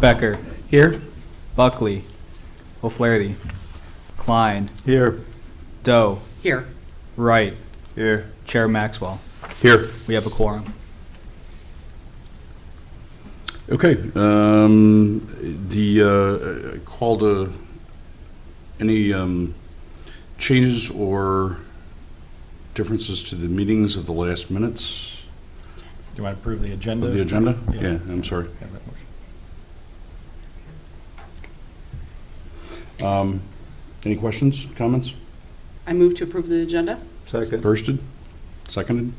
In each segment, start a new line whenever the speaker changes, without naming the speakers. Becker,
Here?
Buckley, O'Flaherty, Klein,
Here.
Doe,
Here.
Wright,
Here.
Chair Maxwell.
Here.
We have a quorum.
Okay, um, the, uh, call to, any, um, changes or differences to the meetings of the last minutes
Do you want to approve the agenda?
of the agenda?
Uh, Yeah.
Yeah, I'm sorry.
Have that motion.
Um, any questions, comments?
I move to approve the agenda.
Second.
Firsted, seconded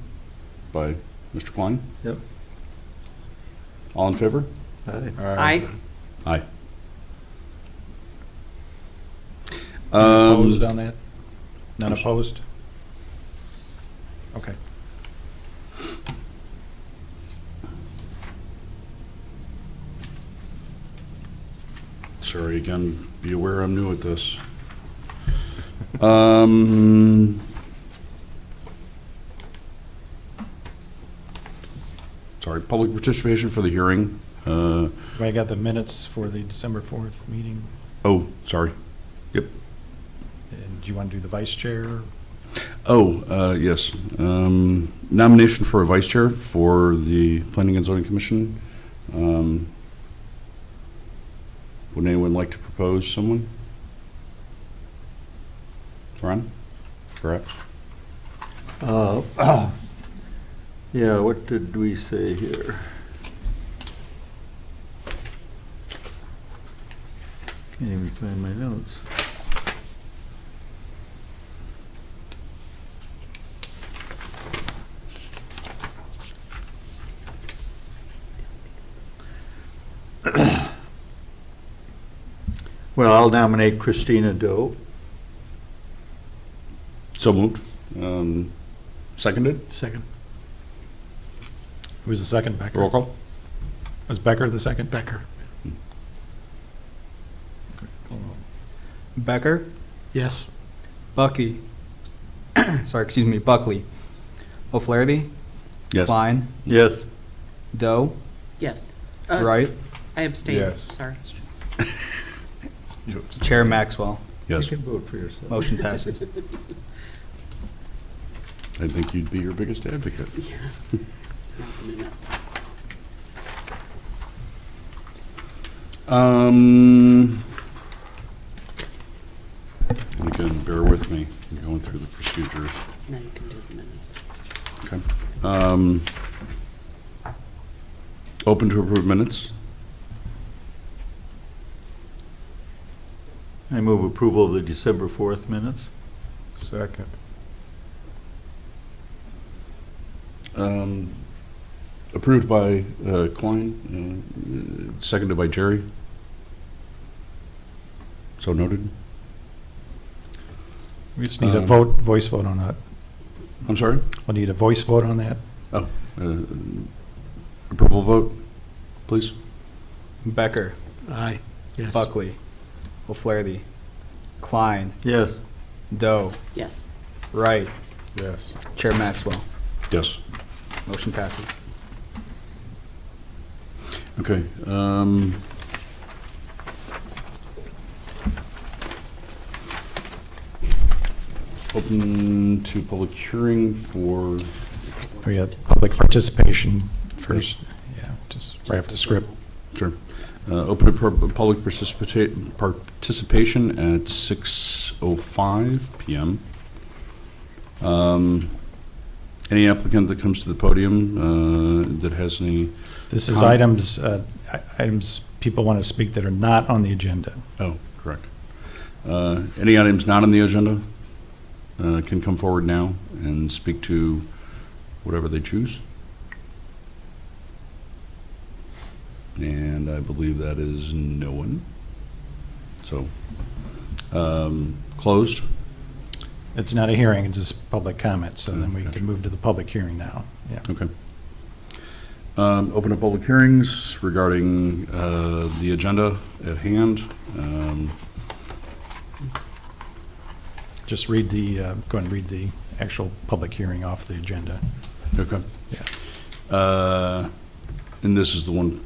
by Mr. Klein?
Yep.
All in favor?
Aye.
Aye.
Aye.
Opposed
Um,
on that? None
I'm s-
opposed? Okay.
sorry again, be aware I'm new at this. Um, sorry, public participation for the hearing. Uh,
I got the minutes for the December 4th meeting.
oh, sorry.
And do you want to do the vice chair?
Oh, uh, yes. Um, nomination for a vice chair for the Planning and Zoning Commission. Um, would anyone like to propose someone? Ron, perhaps?
Uh, Yeah, what did we say here? Can't even find my notes. Well, I'll nominate Christina Doe.
So moved. Um, seconded?
Second. Who was the second, Becker?
Roll call?
Was Becker the second? Becker.
Becker,
Yes.
Bucky, sorry, excuse me, Buckley, O'Flaherty,
Yes.
Klein,
Yes.
Doe,
Yes. Uh,
Wright,
I abstain,
Yes.
sorry.
Chair Maxwell.
Yes.
You can vote for yourself.
Motion passes.
I think you'd be your biggest advocate.
Yeah. Not the minutes.
Um, again, bear with me, I'm going through the procedures.
Now you can do the minutes.
Okay. Um, Open to approve minutes?
I move approval of the December 4th minutes.
Second.
Um, Approved by uh, Klein, uh, seconded by Jerry. So noted.
We just need a
Um,
vote, voice vote on that.
I'm sorry?
We'll need a voice vote on that.
Uh, Approval vote, please?
Becker,
Aye. Yes.
Buckley, O'Flaherty, Klein,
Yes.
Doe,
Yes.
Wright,
Yes.
Chair Maxwell.
Yes.
Motion passes.
Okay. um, Open to public hearing for,
We had public participation first, yeah, just right off the script.
sure, Uh, open to pub- public participat- participation at 6:05 PM. Um, Any applicant that comes to the podium uh, that has any,
This is
Con-
items, uh, i- items people want to speak that are not on the agenda.
oh, correct. Uh, Any items not on the agenda uh, can come forward now and speak to whatever they choose. And I believe that is no one. So, um, closed?
It's not a hearing, it's just public comment, so then we
Mm, gotcha.
can move to the public hearing now. Yeah.
Okay. Um, Open up public hearings regarding uh, the agenda at hand. Um,
Just read the, uh, go and read the actual public hearing off the agenda.
Okay.
Yeah.
Uh, And this is the one